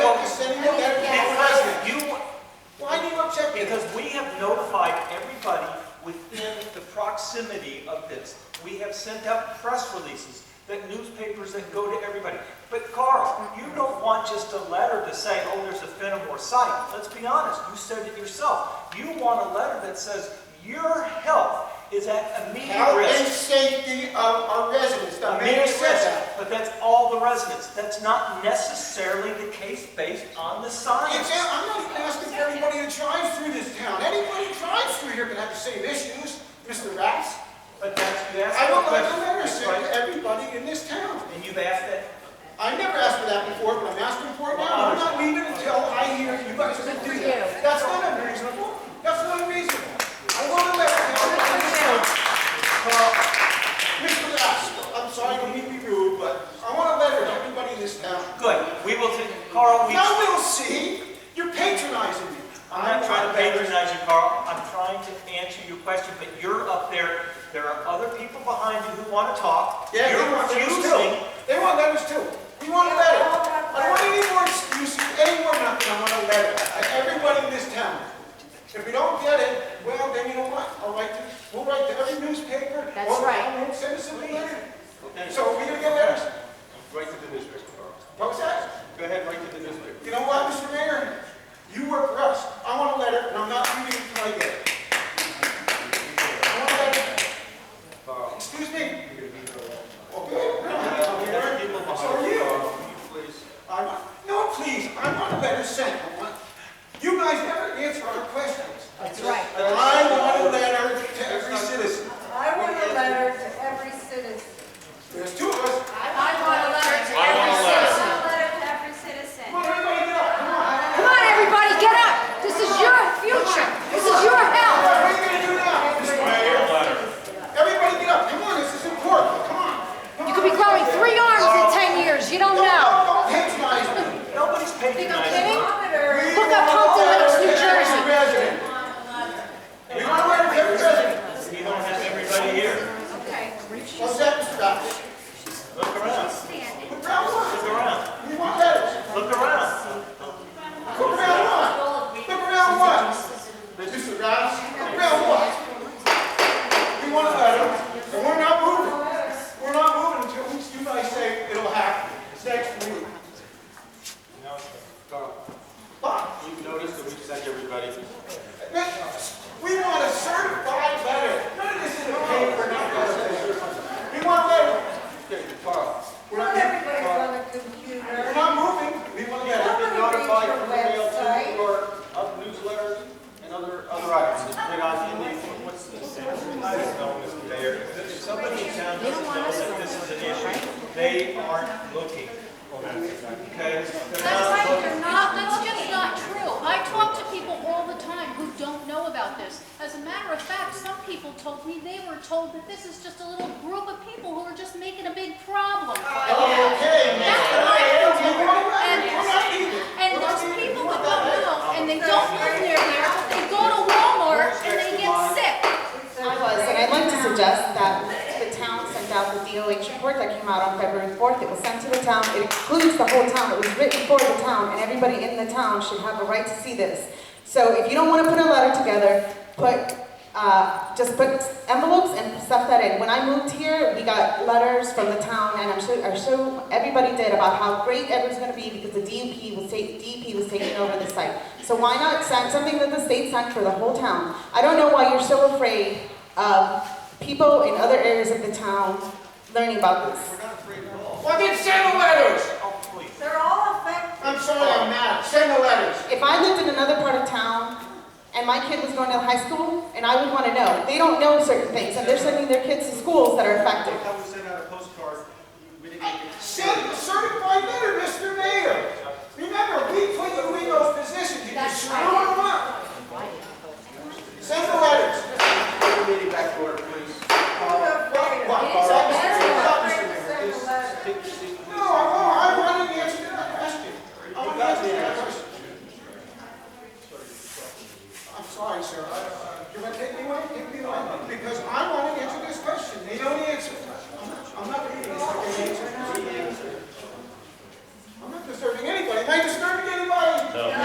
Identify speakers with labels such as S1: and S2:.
S1: proximity of this. We have sent out press releases, that newspapers that go to everybody. But Carl, you don't want just a letter to say, oh, there's a Fenimore site. Let's be honest, you said it yourself. You want a letter that says, your health is at immediate
S2: Health and
S1: risk.
S2: safety of our residents, the mayor
S1: Immediate
S2: said
S1: risk,
S2: that.
S1: but that's all the residents. That's not necessarily the case based on the science.
S2: It's, I'm not asking for anybody that drives through this town, anybody that drives through here can have the same issues, Mr. Raps.
S1: But that's, you asked.
S2: I would
S1: the
S2: like a
S1: question,
S2: letter sent
S1: right?
S2: to everybody in this town.
S1: And you've asked that,
S2: I never asked for that before, but I'm asking for it now. I'm not leaving until I hear you guys are gonna do that. That's not unreasonable. That's not unreasonable. I want to let everyone know. Uh, Mr. Lass, I'm sorry, I don't mean to be rude, but I want a letter to everybody in this town.
S1: good, we will, take Carl, we.
S2: Now we'll see. You're patronizing me.
S1: I'm not trying to patronize you, Carl. I'm trying to answer your question, but you're up there. There are other people behind you who want to talk.
S2: Yeah, they
S1: You're
S2: want letters
S1: refusing.
S2: too. They want letters too. We want a letter. I don't want any more excuses, any more nothing. I want a letter. Like Everybody in this town. If we don't get it, well, then you know what? I'll write to, we'll write to every newspaper.
S3: That's
S2: Well,
S3: right.
S2: Won't send us a letter.
S1: Then-
S2: So are we gonna get letters?
S4: Right to the newspaper, Carl.
S2: What was that?
S4: Go ahead, right to the newspaper.
S2: You know what, Mr. Mayor? You work for us. I want a letter and I'm not leaving until I get it. I want a letter.
S4: Carl,
S2: Excuse me?
S4: Um, you're gonna be here a long time.
S2: Okay.
S1: People
S2: So are
S1: behind
S2: you.
S1: you.
S4: Will you please?
S2: I want, no, please, I want a letter sent. I want- You guys never answer our questions.
S3: That's right.
S2: And I want a letter to every citizen.
S5: I want a letter to every citizen.
S2: There's two of us.
S5: I want a letter to
S6: I want a
S5: I
S6: letter.
S5: want a letter to every citizen.
S2: Come on, everybody get up, come on.
S3: Come on, everybody, get up. This is your future. This is your
S2: What
S3: health.
S2: are you gonna do now? Mr. Mayor? Everybody get up, come on, this is important, come on.
S3: You
S2: Come on.
S3: could be growing three arms in 10 years. You don't
S2: Don't-
S3: know.
S2: Don't don't patronize me.
S1: Nobody's
S3: Think I'm
S1: patronizing.
S3: kidding?
S5: Letter.
S2: We
S3: Look up
S2: want a
S3: Pompton
S2: letter
S3: Lakes, New
S2: to every
S3: Jersey.
S2: resident. We want a letter to every resident.
S1: You don't have everybody here.
S5: Okay.
S2: What's that, Mr. Bax?
S1: Look around,
S5: Standing.
S2: Look around
S1: look
S2: one.
S1: around,
S2: We want letters.
S1: look around.
S2: Look around one. Look around one. Mr. Rouse, around what? We want a letter, and we're not moving. We're not moving until you guys say it'll happen. It's next week.
S4: No, Carl,
S2: But,
S4: you've noticed that we've sent everybody.
S2: we want a certified letter. None of this is a paper, not letter. We want a letter.
S4: Okay, Carl,
S2: We're
S5: Not
S2: not,
S5: everybody's
S2: moving.
S5: on the computer.
S2: we're not moving. We want a
S4: have
S2: letter.
S4: been
S5: Somebody read
S4: notified
S5: your
S4: through email
S5: website.
S4: too, or of newsletters and other, other items. They're not in the- what's this?
S1: I don't know, Mr. Mayor, if somebody in town doesn't know that this is an issue, they aren't looking. Okay? They're
S6: That's
S1: not
S6: right,
S1: looking.
S6: they're not, that's just not true. I talk to people all the time who don't know about this. As a matter of fact, some people told me they were told that this is just a little group of people who are just making a big problem.
S2: Okay, man.
S6: That's what I
S2: We're
S6: told
S2: not
S6: you.
S2: leaving. We're not leaving.
S6: And
S2: We're not
S6: there's
S2: leaving.
S6: people
S2: We
S6: that
S2: want
S6: don't
S2: that letter.
S6: know, and they don't live near there, but they go to Walmart and they get sick.
S7: I was, and I'd like to suggest that the town sent out the DOH report that came out on February 4th. It was sent to the town, it includes the whole town, it was written for the town, and everybody in the town should have a right to see this. So if you don't want to put a letter together, put, uh, just put envelopes and stuff that in. When I moved here, we got letters from the town, and I'm sure, I'm sure everybody did about how great everyone's gonna be because the DEP was taking, DEP was taking over the site. So why not send something that the state sent for the whole town? I don't know why you're so afraid of people in other areas of the town learning about this.
S2: Well, then send the letters.
S1: Oh, please.
S5: They're all affected.
S2: I'm sorry, I'm mad. Send the letters.
S7: If I lived in another part of town and my kid was going to high school, and I would want to know, they don't know certain things, and they're sending their kids to schools that are affected.
S4: I was sent out a postcard. We didn't even get-
S2: Send a certified letter, Mr. Mayor. Remember, we put you in those positions, you just screw them up. Send the letters.
S4: Bring the meeting back to order, please. Carl,
S2: What, what,
S5: So
S2: all right?
S5: they're
S2: Stop, Mr.
S5: afraid to
S2: Mayor.
S5: send a letter.
S4: take your seat,
S2: No,
S4: please.
S2: no, I wanted to answer that question. I
S4: You
S2: wanted to
S4: got
S2: answer
S4: the
S2: that.
S4: answer.